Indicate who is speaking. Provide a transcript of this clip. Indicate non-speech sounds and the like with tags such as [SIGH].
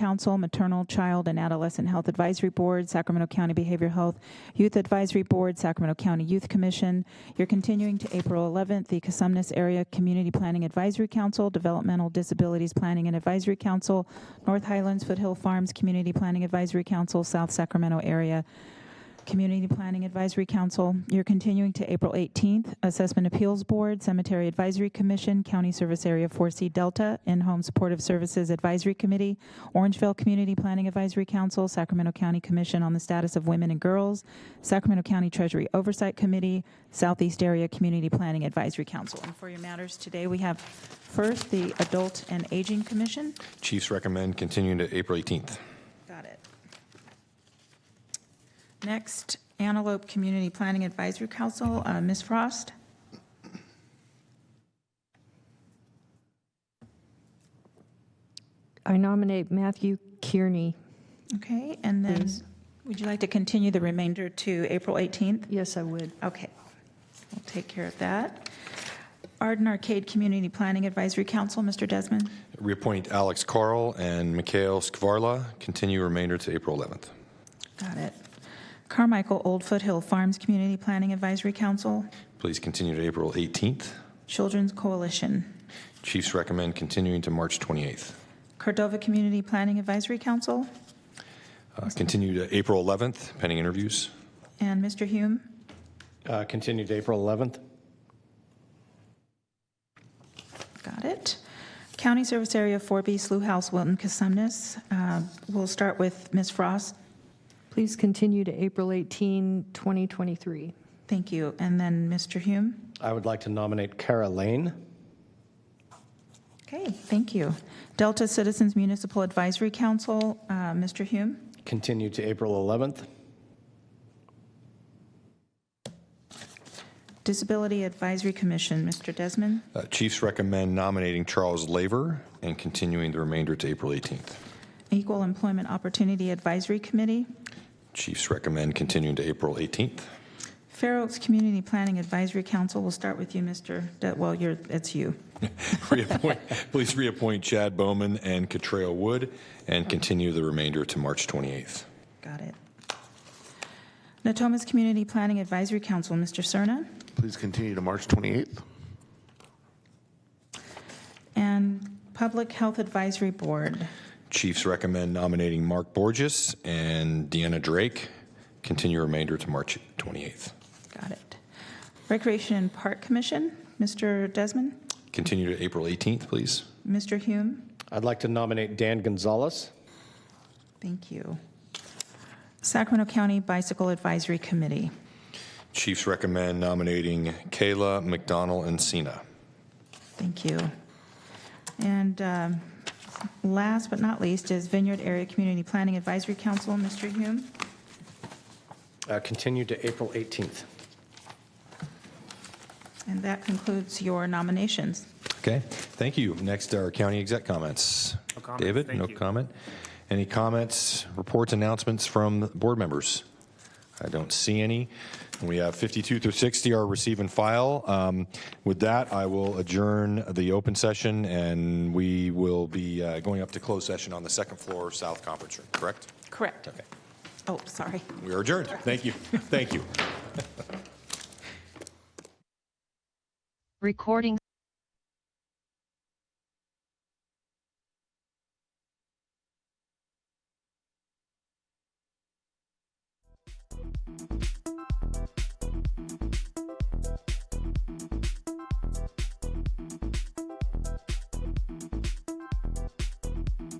Speaker 1: Council, Maternal, Child, and Adolescent Health Advisory Board, Sacramento County Behavioral Health Youth Advisory Board, Sacramento County Youth Commission. You're continuing to April 11th, the Casumnes Area Community Planning Advisory Council, Developmental Disabilities Planning and Advisory Council, North Highlands Foothill Farms Community Planning Advisory Council, South Sacramento Area Community Planning Advisory Council. You're continuing to April 18th. Assessment Appeals Board, Cemetery Advisory Commission, County Service Area 4C Delta, In-Home Supportive Services Advisory Committee, Orangeville Community Planning Advisory Council, Sacramento County Commission on the Status of Women and Girls, Sacramento County Treasury Oversight Committee, Southeast Area Community Planning Advisory Council. And for your matters today, we have first the Adult and Aging Commission.
Speaker 2: Chiefs recommend continuing to April 18th.
Speaker 1: Got it. Next, Antelope Community Planning Advisory Council, uh, Ms. Frost.
Speaker 3: I nominate Matthew Kearney.
Speaker 1: Okay, and then, would you like to continue the remainder to April 18th?
Speaker 3: Yes, I would.
Speaker 1: Okay, we'll take care of that. Arden Arcade Community Planning Advisory Council, Mr. Desmond.
Speaker 2: Reappoint Alex Carl and Mikhail Skvarla, continue remainder to April 11th.
Speaker 1: Got it. Carmichael Old Foothill Farms Community Planning Advisory Council,
Speaker 2: Please continue to April 18th.
Speaker 1: Children's Coalition.
Speaker 2: Chiefs recommend continuing to March 28th.
Speaker 1: Cordova Community Planning Advisory Council,
Speaker 2: Uh, Continue to April 11th, pending interviews.
Speaker 1: and Mr. Hume.
Speaker 4: Uh, Continued to April 11th.
Speaker 1: Got it. County Service Area 4B, Slough House, Wilton, Casumnes. Uh, We'll start with Ms. Frost.
Speaker 3: Please continue to April 18, 2023.
Speaker 1: Thank you. And then Mr. Hume.
Speaker 4: I would like to nominate Kara Lane.
Speaker 1: Okay, thank you. Delta Citizens Municipal Advisory Council, uh, Mr. Hume.
Speaker 4: Continued to April 11th.
Speaker 1: Disability Advisory Commission, Mr. Desmond.
Speaker 2: Uh, Chiefs recommend nominating Charles Laver and continuing the remainder to April 18th.
Speaker 1: Equal Employment Opportunity Advisory Committee.
Speaker 2: Chiefs recommend continuing to April 18th.
Speaker 1: Fair Oaks Community Planning Advisory Council, we'll start with you, Mr. De- well, you're, it's you.
Speaker 2: [LAUGHS] Reappoint, please reappoint Chad Bowman and Catrell Wood and continue the remainder to March 28th.
Speaker 1: Got it. Natomas Community Planning Advisory Council, Mr. Serna.
Speaker 5: Please continue to March 28th.
Speaker 1: And Public Health Advisory Board.
Speaker 2: Chiefs recommend nominating Mark Borges and Deanna Drake. Continue remainder to March 28th.
Speaker 1: Got it. Recreation and Park Commission, Mr. Desmond,
Speaker 2: Continue to April 18th, please.
Speaker 1: Mr. Hume.
Speaker 4: I'd like to nominate Dan Gonzalez.
Speaker 1: Thank you. Sacramento County Bicycle Advisory Committee.
Speaker 2: Chiefs recommend nominating Kayla McDonald and Cena.
Speaker 1: Thank you. And um, last but not least is Vineyard Area Community Planning Advisory Council, Mr. Hume.
Speaker 4: Uh, Continued to April 18th.
Speaker 1: And that concludes your nominations.
Speaker 2: Okay, thank you. Next are county exec comments.
Speaker 6: No comment,
Speaker 2: David,
Speaker 6: thank
Speaker 2: no
Speaker 6: you.
Speaker 2: comment. Any comments, reports, announcements from board members? I don't see any. We have 52 through 60 are receive and file. Um, With that, I will adjourn the open session, and we will be uh, going up to closed session on the second floor, South Conference Room, correct?
Speaker 1: Correct.
Speaker 2: Okay,
Speaker 1: Oh, sorry.
Speaker 2: we are adjourned. Thank you, thank you.
Speaker 7: Recording